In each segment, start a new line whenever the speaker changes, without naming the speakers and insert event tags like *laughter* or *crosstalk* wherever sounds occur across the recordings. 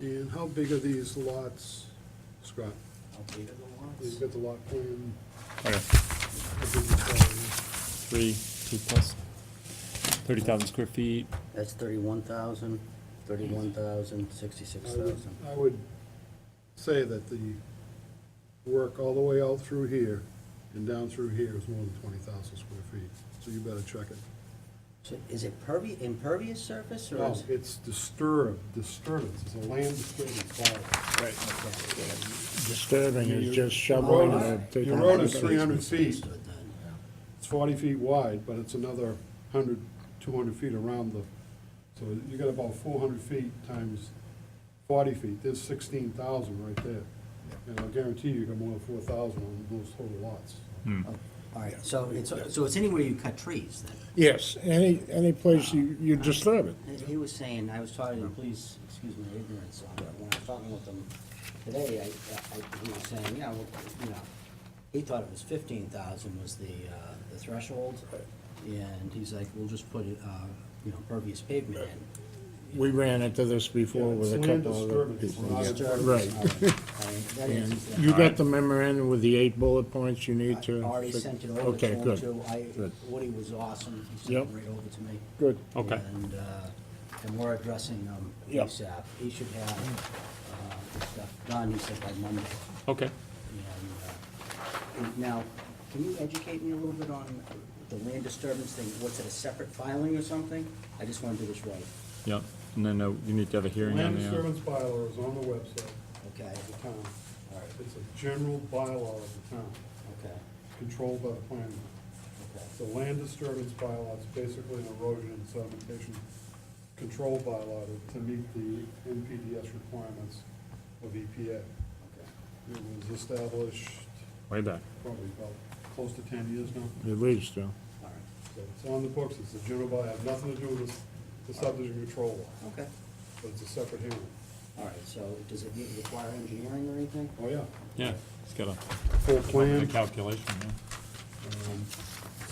And how big are these lots, Scott?
How big are the
You've
lots?
got the lot plan.
Okay,
how big is that?
three, two plus, thirty thousand square feet,
That's thirty-one thousand, thirty-one thousand, sixty-six
I would-
thousand.
I would say that the work all the way out through here and down through here is more than twenty thousand square feet, so you better check it.
So is it pervi, impervious surface or
No,
is?
it's disturbed, disturbance, it's a land disturbance bylaw.
Disturbing
You-
is just
Your
shoveling
road
and
is-
taking.
your
out
road is
the-
three hundred feet,
Understood then.
it's forty feet wide, but it's another 100, 200 feet around the, so you got about four hundred feet times forty feet, there's sixteen thousand right there. And I guarantee you got more than four thousand on those total lots.
All right, so it's, so it's anywhere you cut trees then?
Yes, any, any place you, you disturb it.
He- He was saying, I was talking, to please, excuse my ignorance on it, when I was talking with him today, I, I, he was saying, yeah, well, you know, he thought it was fifteen thousand was the, uh, the threshold. And he's like, we'll just put, it, uh, you know, pervious pavement in.
We ran into this before
Yeah, it's
with a
land
couple other
disturbance, it's
people.
not-
Disturbance.
Right.
All all right, that
And
is-
you got the memorandum with the eight bullet points you need
I
to.
already
fi-
sent it over to
Okay,
him
good.
too, I,
good.
Woody was awesome, he sent it
Yep.
right over to me.
Good.
Okay.
And, uh, and we're addressing them
Yep.
ASAP, he should have, uh, this stuff done, he said by Monday.
okay.
And, uh, and now, can you educate me a little bit on the land disturbance thing, what's it, a separate filing or something? I just wanna do this right,
Yep, and then uh, you need to have a hearing on
Land
the, uh,
disturbance bylaw is on the website
okay,
of the town.
all right,
It's a general bylaw of the town,
okay,
controlled by the planning. board.
okay.
The land disturbance bylaw is basically an erosion and sedimentation control bylaw to- to meet the NPDS requirements of E EPA.
Okay.
It was established
way back,
probably about close to ten years now.
At least, though.
All right,
So it's on the books, it's a general bylaw, have nothing to do with the subdivision control law,
okay,
but it's a separate hearing.
all right, so does it need- require engineering or anything?
Oh, yeah.
yeah, it's got a,
Full
a
plan,
calculation,
um,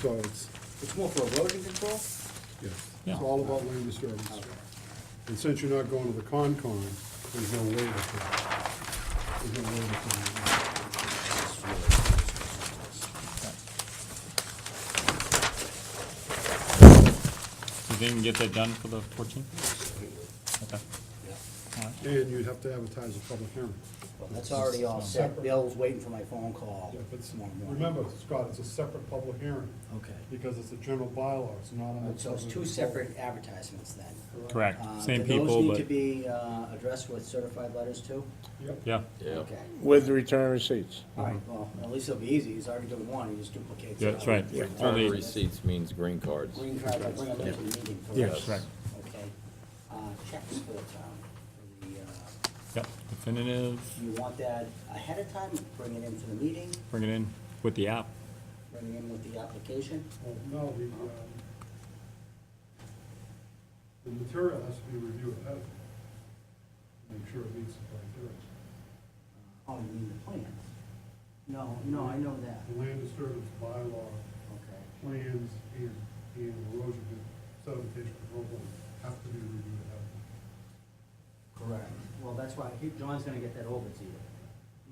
so it's,
It's more for erosion control?
yes,
Yeah.
it's all about land disturbance. And since you're not going to the Concon, there's no waiver for that. There's no waiver for that.
Do you think we can get that done for the fourteenth? Okay,
And you'd have to advertise a public hearing.
Well, That's already all set.
Separate.
Bill's waiting for my phone call
Yeah, but it's-
tomorrow morning.
remember, Scott, it's a separate public hearing,
Okay.
because it's a general bylaw, it's not on the.
So it's two
subdivision
separate advertisements then.
correct,
Uh,
same
Do those
people,
need to
but,
be uh, addressed with certified letters too?
control. Yep.
yeah,
Okay.
With return receipts.
All right, well, at least it'll be easy. He's already doing one, he just duplicates it.
yeah, that's right.
Return
Only,
receipts means green cards.
Green card, I bring up every meeting for us.
Yes. Right.
Okay. Uh, Checks for the town, for the, uh,
yep, definitive,
you want that ahead of time, bring it in for the meeting,
bring it in with the app,
bring it in with the application?
Well, no, the, um, the material has to be reviewed ahead of time. Make sure it meets the criteria.
Oh, you mean the plans? No, no, I know that.
The land disturbance bylaw,
Okay.
plans, and, and erosion and sedimentation control plan have to be reviewed ahead of time.
Correct. Well, that's why, he- John's gonna get that over to you.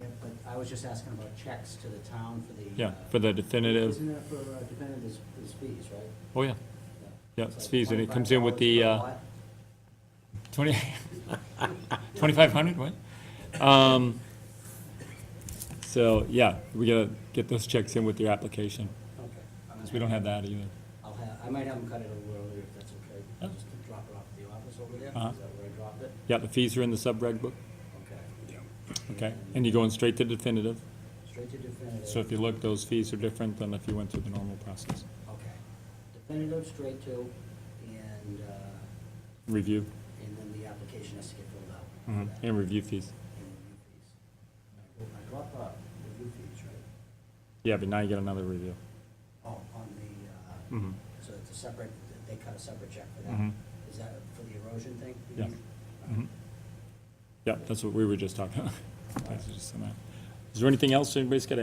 Yeah, but I was just asking about checks to the town for the.
yeah,
uh,
for the definitive,
Isn't that for, uh, dependent, there's, there's fees, right?
oh, yeah, yeah,
It's
it's
like
fees, and it comes in with the,
$25
uh,
per lot.
Twenty, twenty-five hundred, what? Um, so, yeah, we gotta get those checks in with your application,
Okay. I'm gonna
because uh, we don't have that either.
I'll have, I might have him cut it a little earlier if that's okay. I'll
Yeah.
just drop it off at the office over there, is
Uh-huh.
that where I dropped it?
Yeah, the fees are in the subreg book,
Okay.
okay? And you're going straight to definitive,
Straight to definitive.
so if you look, those fees are different than if you went through the normal process.
Okay. Definitive, straight to, and, uh,
Review,
and then the application has to get filled out.
mhm, and review fees.
And review fees. I dropped off review fees, right?
Yeah, but now you get another review.
Oh, on the, uh,
Mhm.
so it's a separate, they cut a separate check for that?
Mhm.
Is that for the erosion thing?
Yeah. Mhm. *laughs* Yeah, that's what we were just talking about. That's just on that. Is there anything else anybody's got